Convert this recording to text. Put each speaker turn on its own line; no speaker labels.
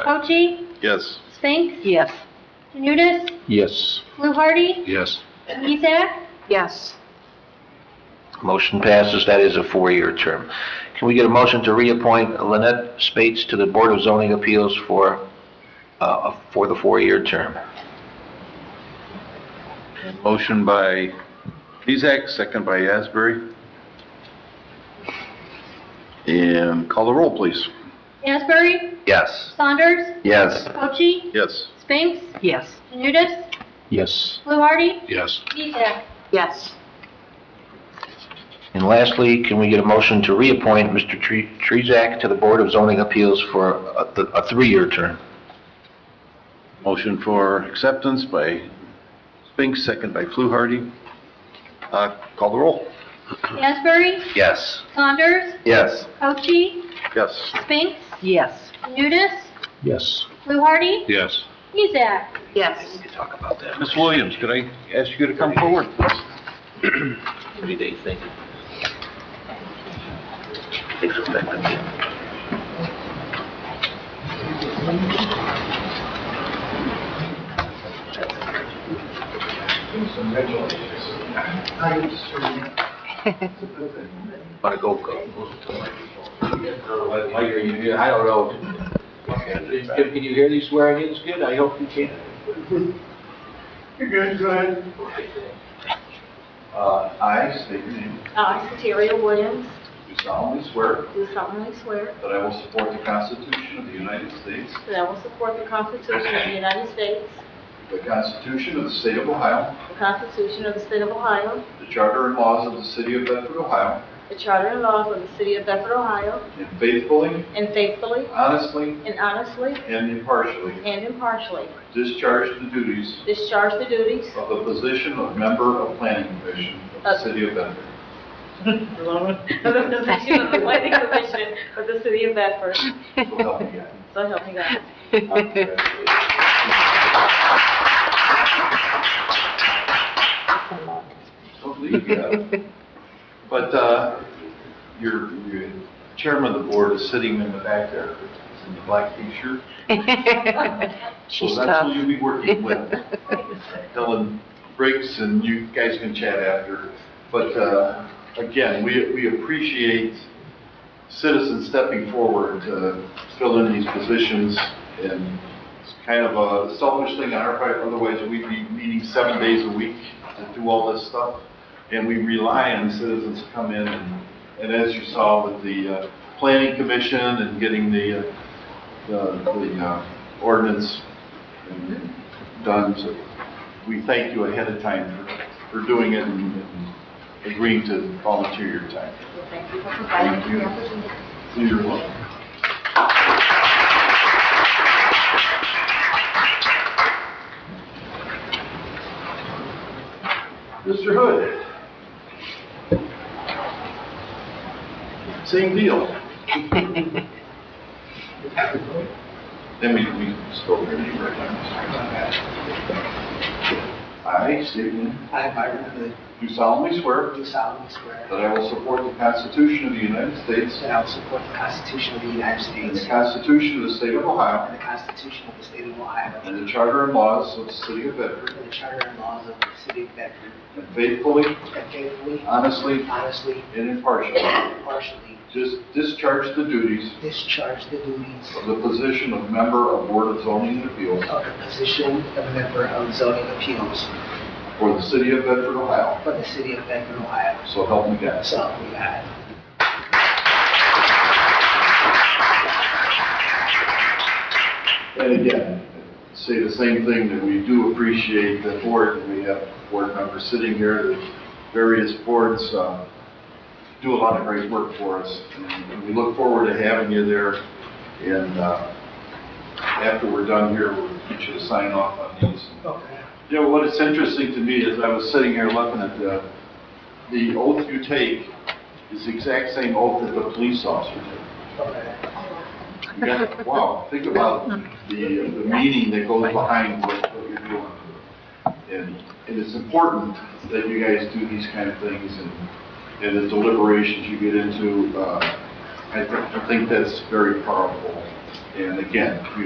Fauci,
Yes.
Spinks,
Yes.
Janutus,
Yes.
Fluharty,
Yes.
Miesak,
Yes.
Motion passes, that is a four-year term. Can we get a motion to reappoint Lynette Spates to the Board of Zoning Appeals for, uh, for the four-year term?
Motion by Mezak, second by Asbury. And call the roll, please.
Asbury,
Yes.
Saunders,
Yes.
Fauci,
Yes.
Spinks,
Yes.
Janutus,
Yes.
Fluharty,
Yes.
Miesak.
Yes.
And lastly, can we get a motion to reappoint Mr. Tre- Trezak to the Board of Zoning Appeals for a, a three-year term?
Motion for acceptance by Spinks, second by Fluharty. Uh, Call the roll.
Asbury,
Yes.
Saunders,
Yes.
Fauci,
Yes.
Spinks,
Yes.
Janutus,
Yes.
Fluharty,
Yes.
Miesak.
Yes.
Talk about that.
Ms. Williams, could I ask you to come forward, please?
Thirty-day thing. Takes effect immediately. Want to go,
Mike, are you here? I don't know. Can can you hear these swearing ins good? I hope you can. Uh, I state your name.
Uh, I, Soteria Williams,
Do solemnly swear
do solemnly swear
that I will support the Constitution of the United States,
that I will support the Constitution of the United States,
the Constitution of the State of Ohio,
the Constitution of the State of Ohio,
the Charter and laws of the City of Bedford, Ohio,
the Charter and laws of the City of Bedford, Ohio,
and faithfully,
and faithfully
honestly,
and honestly
and impartially
and impartially
discharge the duties
discharge the duties
of the position of member of Planning Commission of the City of Bedford.
of the position of the Planning Commission of the City of Bedford.
So help me God.
So help me God.
Don't leave yet. But uh, your your chairman of the board is sitting in the back there in the black t-shirt.
She's
So that's who
tough.
you'll be working with. Dylan breaks and you guys can chat after. But uh, again, we we appreciate citizens stepping forward to fill in these positions. And it's kind of a selfish thing on our part, otherwise we'd be meeting seven days a week to do all this stuff. And we rely on citizens to come in. And and as you saw with the uh, planning commission and getting the uh, the the, uh, ordinance done, so we thank you ahead of time for for doing it and and agreeing to volunteer your time.
Thank you for
Thank you. You're welcome. Mr. Hood. Same deal. Then we, we spoke to you right now. I, state your name,
I, Byron Hood,
do solemnly swear
do solemnly swear
that I will support the Constitution of the United States
that I will support the Constitution of the United
and the
States
Constitution of the State of Ohio
and the Constitution of the State of Ohio
and the Charter and laws of the City of Bedford,
and the Charter and laws of the City of Bedford,
and faithfully,
and faithfully,
Uh, honestly,
honestly,
and impartially
and impartially
just discharge the duties
discharge the duties
of the position of member of Board of Zoning Appeals
of the position of member of zoning appeals
for the City of Bedford, Ohio.
for the City of Bedford, Ohio.
So help me God.
So, we have.
And again, say the same thing, that we do appreciate the board, and we have board members sitting here, the various boards uh, do a lot of great work for us, and we look forward to having you there, and uh, after we're done here, we'll get you to sign off on these. You know, what is interesting to me is I was sitting here looking at the, the oath you take is the exact same oath that the police officer takes. You got- Wow, think about the, the meaning that goes behind what what you're doing. And, and it's important that you guys do these kind of things and, and the deliberations you get into, uh, I think, I think that's very powerful. And again, we